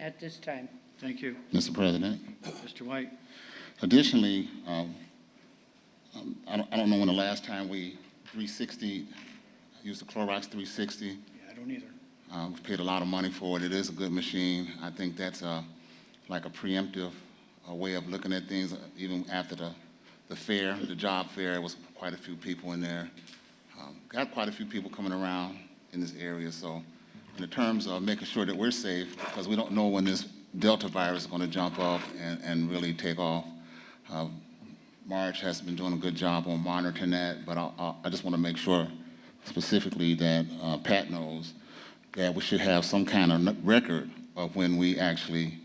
at this time. Thank you. Mr. President. Mr. White, Additionally, um, um, I don't, I don't know when the last time we 360, used the Clorox 360. yeah, I don't either. Uh, We've paid a lot of money for it. It is a good machine. I think that's uh, like a preemptive uh, way of looking at things, uh, even after the, the fair, the job fair, it was quite a few people in there. Um, Got quite a few people coming around in this area, so in the terms of making sure that we're safe, because we don't know when this Delta virus is going to jump off and, and really take off. uh, Marge has been doing a good job on monitoring that, but I- I, I just want to make sure specifically that uh, Pat knows that we should have some kind of n- record of when we actually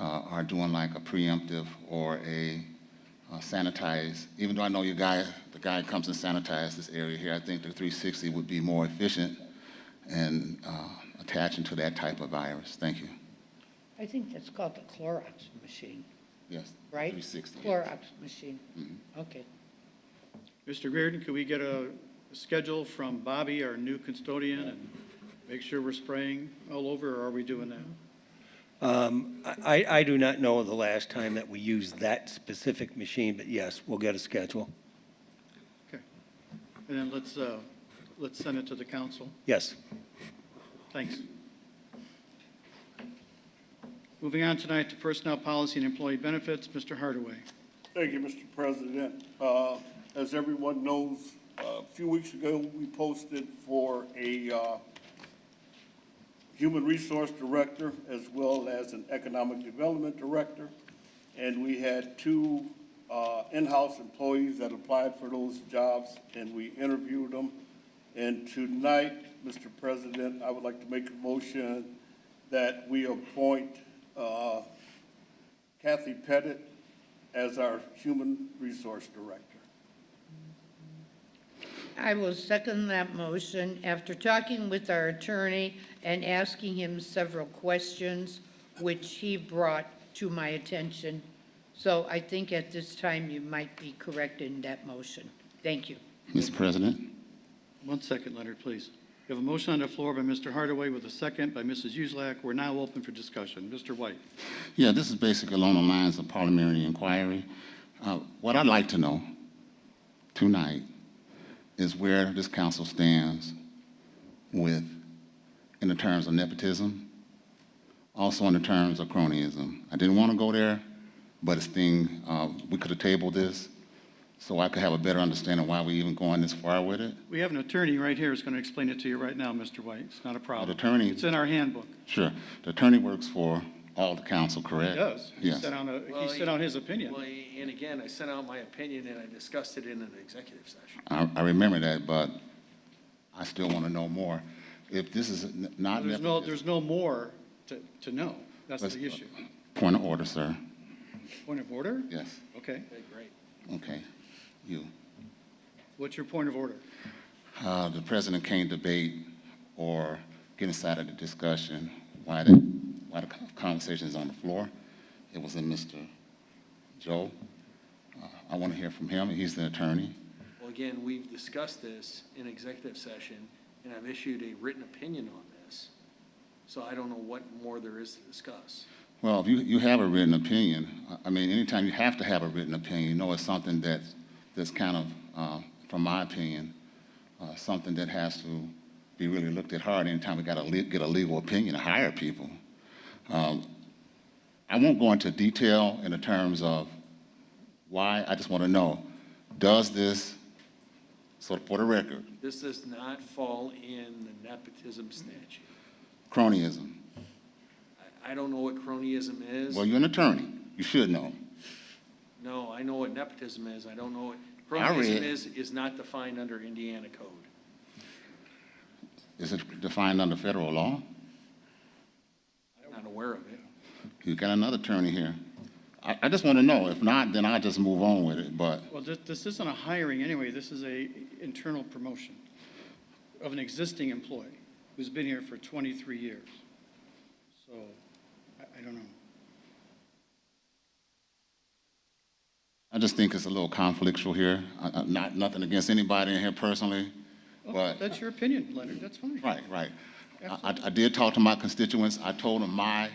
uh, are doing like a preemptive or a uh, sanitized. Even though I know your guy, the guy comes and sanitizes this area here, I think the 360 would be more efficient and uh, attaching to that type of virus. Thank you. I think that's called the Clorox machine, Yes. right? 360. yes. Clorox machine. Okay. Mr. Reardon, could we get a schedule from Bobby, our new custodian, and make sure we're spraying all over, or are we doing that? Um, I, I do not know the last time that we used that specific machine, but yes, we'll get a schedule. Okay. And then let's, uh, let's send it to the council. Yes. Thanks. Moving on tonight to personnel policy and employee benefits, Mr. Hardaway. Thank you, Mr. President. Uh, As everyone knows, a few weeks ago, we posted for a uh, Human Resource Director as well as an Economic Development Director. And we had two uh, in-house employees that applied for those jobs, and we interviewed them. And tonight, Mr. President, I would like to make a motion that we appoint uh, Kathy Pettit as our Human Resource Director. I will second that motion. After talking with our attorney and asking him several questions, which he brought to my attention, so I think at this time you might be correct in that motion. Thank you. Mr. President. One second, Leonard, please. We have a motion on the floor by Mr. Hardaway with a second by Mrs. Uselak. We're now open for discussion. Mr. White. Yeah, this is basically along the lines of parliamentary inquiry. Uh, What I'd like to know tonight is where this council stands with, in the terms of nepotism, also in the terms of cronyism. I didn't want to go there, but it's thing, uh, we could have tabled this so I could have a better understanding why we even going this far with it. We have an attorney right here who's going to explain it to you right now, Mr. White. It's not a problem. attorney- It's in our handbook. Sure, the attorney works for all the council, correct? He does. He Uh, Yes. sent out, a- he Well, sent out his opinion. Well, and again, I sent out my opinion and I discussed it in an executive session. I, I remember that, but I still want to know more. If this is n- not There's no, nepotism, there's no more to, to know. That's Let's- the issue. point of order, sir. Point of order? Yes, Okay. Okay, great. okay. You. What's your point of order? Uh, the president can't debate or get inside of the discussion why the, why the con- conversation is on the floor. It was in Mr. Joe. Uh, I want to hear from him. He's the attorney. Well, again, we've discussed this in executive session and I've issued a written opinion on this. So I don't know what more there is to discuss. Well, if you, you have a written opinion, I- I mean, anytime you have to have a written opinion, you know it's something that's, that's kind of, uh, from my opinion, uh, something that has to be really looked at hard anytime we got to le- get a legal opinion to hire people. Um, I won't go into detail in the terms of why, I just want to know, does this, so for the record, This does not fall in the nepotism statute. cronyism? I, I don't know what cronyism is. Well, you're an attorney, you should know. No, I know what nepotism is. I don't know what, I read- cronyism is, is not defined under Indiana code. Is it defined under federal law? I'm not aware of it. You got another attorney here. I, I just want to know. If not, then I'll just move on with it, but, Well, this, this isn't a hiring anyway. This is a internal promotion of an existing employee who's been here for 23 years. So I, I don't know. I just think it's a little conflictual here. I, I, not, nothing against anybody in here personally, Oh, but, That's your opinion, Leonard. That's fine. right, right. I- I, I did talk to my constituents. I told them my